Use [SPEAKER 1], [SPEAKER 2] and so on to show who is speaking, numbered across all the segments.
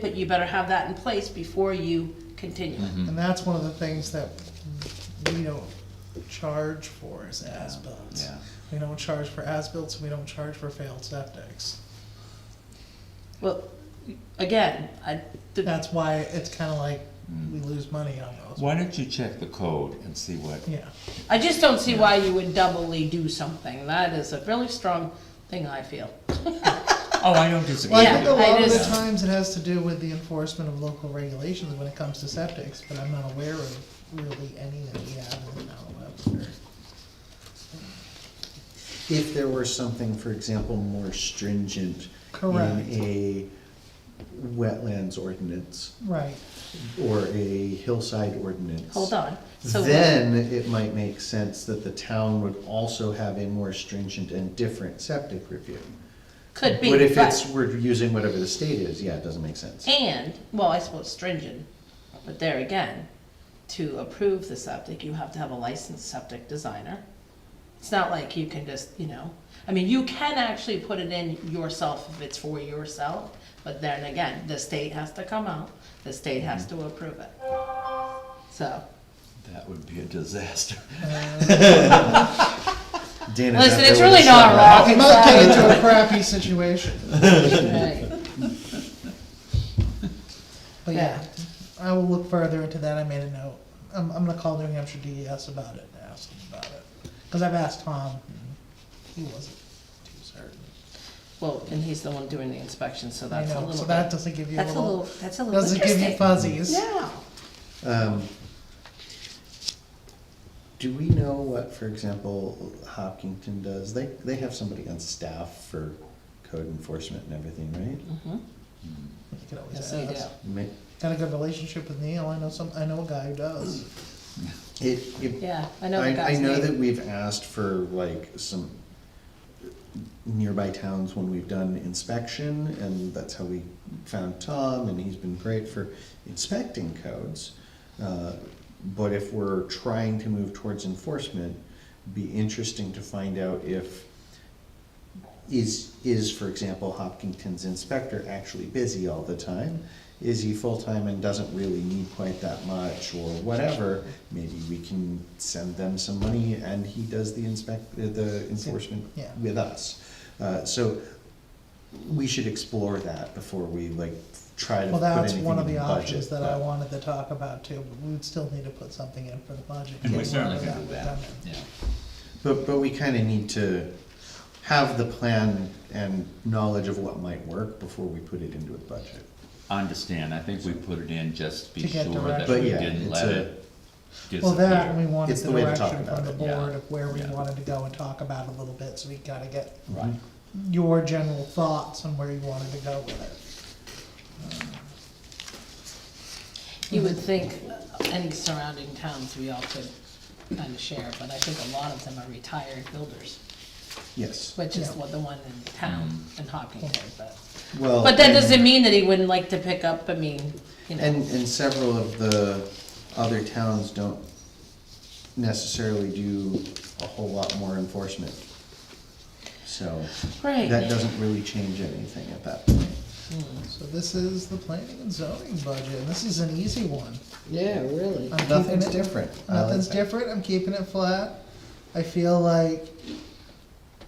[SPEAKER 1] But you better have that in place before you continue
[SPEAKER 2] Mm-hmm.
[SPEAKER 1] it.
[SPEAKER 3] And that's one of the things that we don't charge for is as-bills.
[SPEAKER 4] yeah.
[SPEAKER 3] We don't charge for as-bills, we don't charge for failed septics.
[SPEAKER 1] Well, again, I, the-
[SPEAKER 3] That's why it's kinda like we lose money on those.
[SPEAKER 4] Why don't you check the code and see what,
[SPEAKER 3] Yeah,
[SPEAKER 1] I just don't see why you would doubly do something. That is a really strong thing, I feel.
[SPEAKER 4] oh, I don't disagree
[SPEAKER 3] well, I
[SPEAKER 1] Yeah,
[SPEAKER 3] think a
[SPEAKER 4] with
[SPEAKER 3] lot of the
[SPEAKER 1] just-
[SPEAKER 3] times it has to do with the enforcement of local regulations when it comes to septics, but I'm not aware of really any that we have in Mount Webster.
[SPEAKER 2] If there were something, for example, more stringent
[SPEAKER 3] Correct.
[SPEAKER 2] in a wetlands ordinance
[SPEAKER 3] Right,
[SPEAKER 2] or a hillside ordinance.
[SPEAKER 1] Hold on. So
[SPEAKER 2] Then it might make sense that the town would also have a more stringent and different septic review.
[SPEAKER 1] Could be,
[SPEAKER 2] But if it's,
[SPEAKER 1] but,
[SPEAKER 2] we're using whatever the state is, yeah, it doesn't make sense.
[SPEAKER 1] and, well, I suppose stringent, but there again, to approve the septic, you have to have a licensed septic designer. It's not like you can just, you know, I mean, you can actually put it in yourself if it's for yourself, but then again, the state has to come out, the state has to approve it. So,
[SPEAKER 4] That would be a disaster.
[SPEAKER 2] Dan, if
[SPEAKER 1] listen,
[SPEAKER 2] that
[SPEAKER 1] it's
[SPEAKER 2] there was
[SPEAKER 1] really
[SPEAKER 2] a
[SPEAKER 1] not
[SPEAKER 2] setback-
[SPEAKER 1] rocket
[SPEAKER 3] I'm not getting
[SPEAKER 1] science.
[SPEAKER 3] into a crappy situation.
[SPEAKER 1] right.
[SPEAKER 3] But
[SPEAKER 1] Yeah.
[SPEAKER 3] yeah, I will look further into that, I made a note. I'm, I'm gonna call New Hampshire DES about it and ask them about it. Cause I've asked Tom, and he
[SPEAKER 1] Mm-hmm.
[SPEAKER 3] wasn't too certain.
[SPEAKER 1] Well, and he's the one doing the inspection, so
[SPEAKER 3] I
[SPEAKER 1] that's a
[SPEAKER 3] know,
[SPEAKER 1] little.
[SPEAKER 3] so that
[SPEAKER 1] bit-
[SPEAKER 3] doesn't give you a
[SPEAKER 1] That's a little,
[SPEAKER 3] little,
[SPEAKER 1] that's a little
[SPEAKER 3] doesn't give you
[SPEAKER 1] interesting.
[SPEAKER 3] fuzzies.
[SPEAKER 1] Yeah.
[SPEAKER 2] Um, Do we know what, for example, Hopkinton does? They, they have somebody on staff for code enforcement and everything, right?
[SPEAKER 3] You can
[SPEAKER 1] Mm-hmm.
[SPEAKER 3] always
[SPEAKER 1] Yes, they do.
[SPEAKER 3] ask.
[SPEAKER 2] Ma-
[SPEAKER 3] Got a good relationship with Neil, I know some, I know a guy who
[SPEAKER 1] Mm.
[SPEAKER 3] does.
[SPEAKER 2] It, it.
[SPEAKER 1] Yeah, I know the
[SPEAKER 2] I
[SPEAKER 1] guy's
[SPEAKER 2] know that
[SPEAKER 1] name.
[SPEAKER 2] we've asked for like some nearby towns when we've done inspection, and that's how we found Tom, and he's been great for inspecting codes. Uh, But if we're trying to move towards enforcement, be interesting to find out if is, is, for example, Hopkinton's inspector actually busy all the time? Is he full-time and doesn't really need quite that much or whatever? Maybe we can send them some money and he does the inspect, uh, the enforcement
[SPEAKER 3] Yeah.
[SPEAKER 2] with us. Uh, so we should explore that before we like try
[SPEAKER 3] Well,
[SPEAKER 2] to put
[SPEAKER 3] that's
[SPEAKER 2] anything in the budget.
[SPEAKER 3] one of the options that I
[SPEAKER 2] but-
[SPEAKER 3] wanted to talk about too, but we would still need to put something in for the budget.
[SPEAKER 4] And we
[SPEAKER 2] Yeah.
[SPEAKER 4] certainly can do that, yeah.
[SPEAKER 2] But, but we kinda need to have the plan and knowledge of what might work before we put it into a budget.
[SPEAKER 4] I Understand, I think we put it in just to be
[SPEAKER 3] To
[SPEAKER 4] sure
[SPEAKER 3] get
[SPEAKER 4] that
[SPEAKER 3] direction.
[SPEAKER 4] we
[SPEAKER 2] But yeah,
[SPEAKER 4] didn't
[SPEAKER 2] it's
[SPEAKER 4] let
[SPEAKER 2] a-
[SPEAKER 4] it
[SPEAKER 3] Well, that, and we
[SPEAKER 4] disappear.
[SPEAKER 3] wanted
[SPEAKER 2] It's
[SPEAKER 3] the
[SPEAKER 2] the way to talk
[SPEAKER 3] direction from
[SPEAKER 2] about
[SPEAKER 3] the
[SPEAKER 2] it,
[SPEAKER 4] yeah.
[SPEAKER 3] board of where we
[SPEAKER 4] Yeah.
[SPEAKER 3] wanted to go and talk about a little bit, so we gotta get
[SPEAKER 4] Right,
[SPEAKER 3] your general thoughts on where you wanted to go with
[SPEAKER 1] You would think any surrounding towns we all could kind of share, but I think a lot of them are retired builders,
[SPEAKER 2] Yes,
[SPEAKER 1] which is
[SPEAKER 3] Yeah.
[SPEAKER 1] what the one in town, in Hopkinton, but.
[SPEAKER 2] well.
[SPEAKER 1] But that
[SPEAKER 2] and-
[SPEAKER 1] doesn't mean that he wouldn't like to pick up, I mean, you know,
[SPEAKER 2] And, and several of the other towns don't necessarily do a whole lot more enforcement. So that
[SPEAKER 1] right,
[SPEAKER 2] doesn't really change anything at that point.
[SPEAKER 3] it. So this is the planning and zoning budget, and this is an easy one.
[SPEAKER 5] Yeah, really.
[SPEAKER 3] I'm keeping
[SPEAKER 2] Nothing's
[SPEAKER 3] it-
[SPEAKER 2] different. I like
[SPEAKER 3] Nothing's
[SPEAKER 2] that.
[SPEAKER 3] different, I'm keeping it flat. I feel like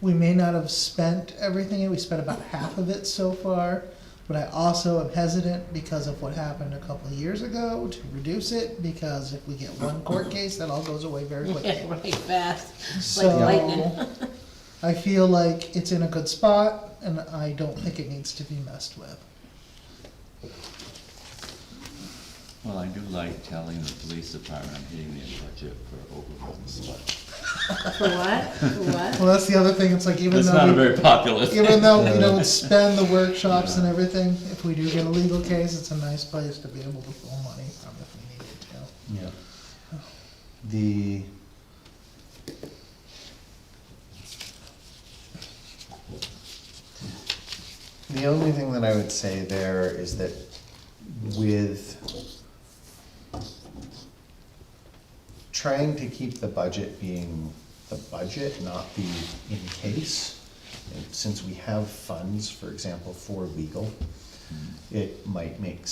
[SPEAKER 3] we may not have spent everything, we spent about half of it so far. But I also am hesitant because of what happened a couple of years ago to reduce it, because if we get one court case, that all goes away very quickly.
[SPEAKER 1] yeah, right, fast, like lightning.
[SPEAKER 3] So, I feel like it's in a good spot, and I don't think it needs to be messed with.
[SPEAKER 4] well, I do like telling the police department I'm hitting their budget for overruns, but
[SPEAKER 1] For what, for what?
[SPEAKER 3] Well, that's the other thing, it's like even
[SPEAKER 4] it's not a
[SPEAKER 3] though,
[SPEAKER 4] very popular
[SPEAKER 3] we- even though we don't spend the workshops and everything, if we do get a legal case, it's a nice place to be able to pull money from if we needed to.
[SPEAKER 2] Yeah. The. The only thing that I would say there is that with trying to keep the budget being the budget, not the in case, and since we have funds, for example, for legal, it might make